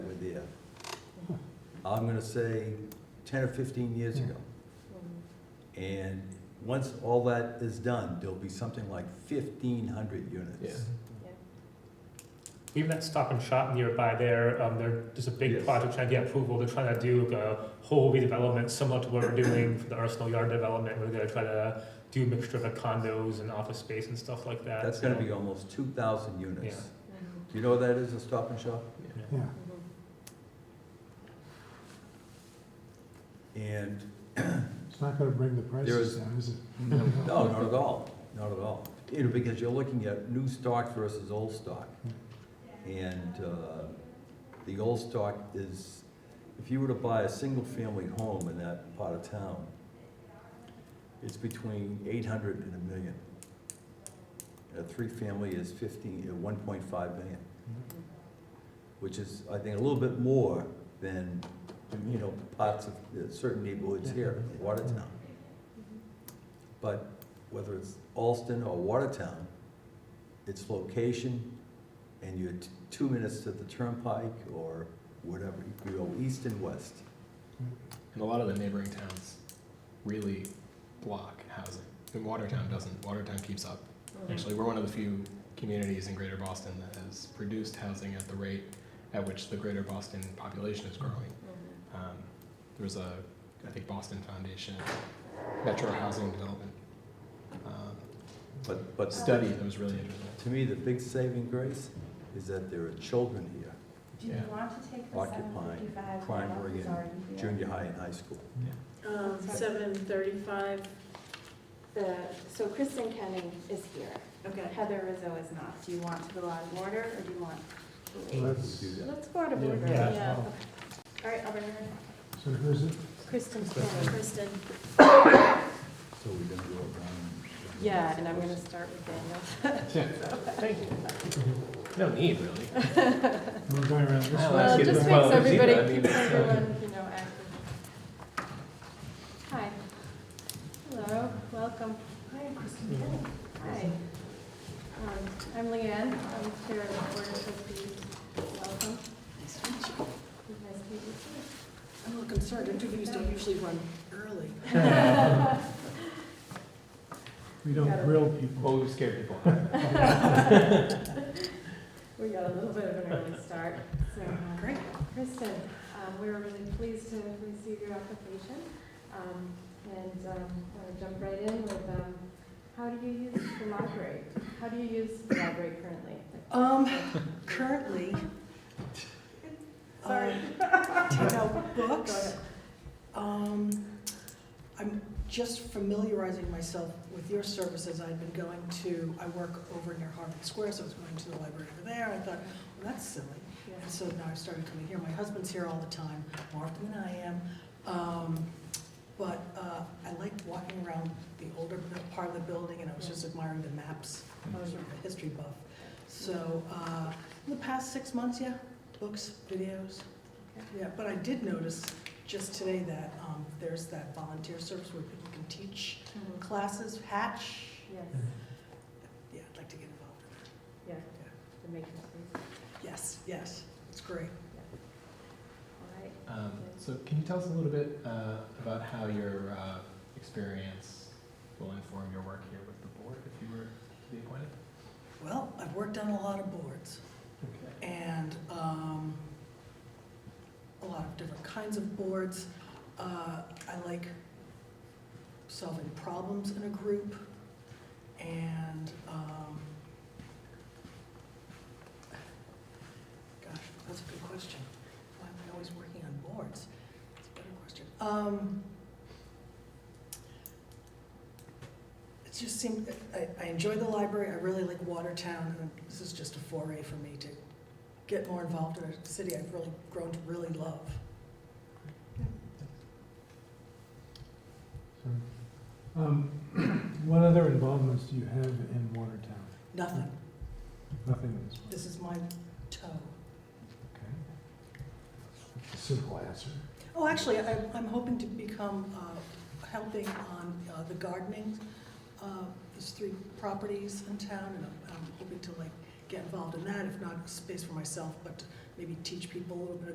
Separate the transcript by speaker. Speaker 1: uh, I'm gonna say ten or fifteen years ago. And once all that is done, there'll be something like fifteen hundred
Speaker 2: Yeah.
Speaker 1: units.
Speaker 3: Even that stop and shop nearby there, um, they're just a big
Speaker 1: Yes.
Speaker 3: project trying to get approval. They're trying to do a whole redevelopment similar to what we're doing for the Arsenal Yard development. We're gonna try to do a mixture of condos and office space and stuff like that.
Speaker 1: That's gonna be almost two thousand units.
Speaker 3: Yeah.
Speaker 1: Do you know what that is, a stop and shop?
Speaker 3: Yeah.
Speaker 4: Yeah.
Speaker 1: And
Speaker 4: It's not gonna bring the prices
Speaker 1: is-
Speaker 4: down, is it?
Speaker 1: No, not at all, not at all. You know, because you're looking at new stock versus old stock. And uh, the old stock is, if you were to buy a single-family home in that part of town, it's between 800 and a million. A three-family is 15, uh, 1.5 million, which is, I think, a little bit more than, you know, parts of uh, certain neighborhoods here, in Watertown. But whether it's Alston or Watertown, its location, and you're t- two minutes to the turnpike or whatever, you go east and west.
Speaker 2: And a lot of the neighboring towns really block housing. And Watertown doesn't. Watertown keeps up. Actually, we're one of the few communities in Greater Boston that has produced housing at the rate at which the Greater Boston population is growing. Um, there was a, I think, Boston Foundation Metro Housing Development um,
Speaker 1: But, but
Speaker 2: study that was really interesting.
Speaker 1: to me, the big saving grace is that there are children here,
Speaker 5: Do you
Speaker 2: Yeah.
Speaker 5: want to take the seven
Speaker 1: Occupying
Speaker 5: fifty-five?
Speaker 1: primary and junior high and high school.
Speaker 6: Um, seven thirty-five,
Speaker 5: The, so Kristen Kenning is here.
Speaker 6: okay.
Speaker 5: Heather Rizzo is not. Do you want to go out of order or do you want to
Speaker 4: Well,
Speaker 5: wait?
Speaker 4: that's-
Speaker 1: Do that.
Speaker 5: Let's go out of
Speaker 2: Yeah.
Speaker 5: order.
Speaker 3: Yeah.
Speaker 5: Okay. All right, I'll bring her in.
Speaker 4: So who's it?
Speaker 5: Kristen Kenning.
Speaker 6: Kristen,
Speaker 1: So we're gonna go around.
Speaker 5: Yeah, and I'm gonna start with Daniel.
Speaker 2: Yeah, thank you. Mm-hmm. No need, really.
Speaker 4: We're going around this way.
Speaker 2: Well,
Speaker 5: Well,
Speaker 2: that's
Speaker 5: it
Speaker 2: good.
Speaker 5: just
Speaker 2: Well,
Speaker 5: makes
Speaker 2: it's either, I
Speaker 5: everybody,
Speaker 2: mean,
Speaker 5: keeps
Speaker 2: it's, uh,
Speaker 5: everyone, you know, active. Hi. Hello, welcome. Hi, I'm Kristen
Speaker 2: Mm-hmm.
Speaker 5: Kenny. Hi. Um, I'm Leanne, I'm chair of the board of trustees. Welcome.
Speaker 6: nice to meet you.
Speaker 5: Nice to meet you
Speaker 6: I'm a little concerned, interviews don't usually run early.
Speaker 4: We don't grill people.
Speaker 2: Well, we scare people. out.
Speaker 5: too. We got a little bit of an early start, so. um,
Speaker 6: Great.
Speaker 5: Kristen, um, we were really pleased to receive your application. Um, And um, I want to jump right in with, um, how do you use the library? How do you use the library currently?
Speaker 6: Um, currently. uh,
Speaker 5: Sorry.
Speaker 6: I Take out
Speaker 5: Go
Speaker 6: books.
Speaker 5: ahead.
Speaker 6: Um, I'm just familiarizing myself with your services. I'd been going to, I work over near Harvard Square, so I was going to the library over there. I thought, well, that's silly. And
Speaker 5: Yeah.
Speaker 6: so now I've started coming here. My husband's here all the time, more often than I am. Um, But uh, I like walking around the older bu- part of the building, and I was just admiring the maps, I was sort of a history buff. So uh, in the past six months, yeah, books, videos. Yeah, but I did notice just today that um, there's that volunteer service where people can teach
Speaker 5: Mhm.
Speaker 6: classes, Hatch.
Speaker 5: Yes,
Speaker 6: Yeah, I'd like to get involved. in that.
Speaker 5: yeah, to make it easy.
Speaker 6: Yes, yes, it's great.
Speaker 5: All right.
Speaker 2: Um, so can you tell us a little bit uh, about how your uh, experience will inform your work here with the board if you were to be appointed?
Speaker 6: Well, I've worked on a lot of boards.
Speaker 2: Okay.
Speaker 6: and um, a lot of different kinds of boards. Uh, I like solving problems in a group, and um, gosh, that's a good question. Why am I always working on boards? That's a better question. Um, it just seemed I, I enjoy the library. I really like Watertown, and this is just a foray for me to get more involved in a city I've really grown to really love.
Speaker 4: So, um, What other involvements do you have in Watertown?
Speaker 6: Nothing.
Speaker 4: Nothing in this one,
Speaker 6: This is my toe.
Speaker 4: okay? Simple answer.
Speaker 6: Oh, actually, I, I'm hoping to become uh, helping on uh, the gardening. Uh, there's three properties in town, and I'm, I'm hoping to like get involved in that. If not space for myself, but maybe teach people a little bit